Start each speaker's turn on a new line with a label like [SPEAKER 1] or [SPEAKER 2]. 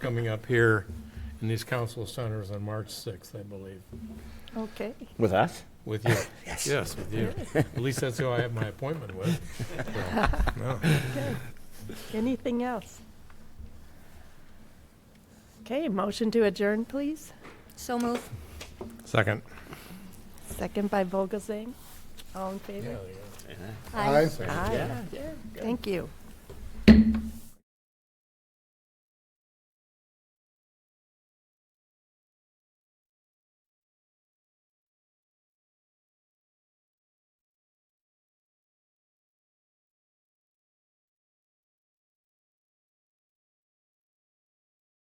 [SPEAKER 1] coming up here in these council centers on March 6th, I believe,
[SPEAKER 2] Okay.
[SPEAKER 3] With us?
[SPEAKER 1] with you. Yes. Yes, with you. At least that's who I have my appointment with. So, no.
[SPEAKER 2] Anything else? Okay, motion to adjourn, please.
[SPEAKER 4] So move.
[SPEAKER 1] Second.
[SPEAKER 2] Second by Vogelzang. All in favor?
[SPEAKER 1] Yeah, yeah.
[SPEAKER 4] Aye.
[SPEAKER 1] Second.
[SPEAKER 2] Aye. Thank you.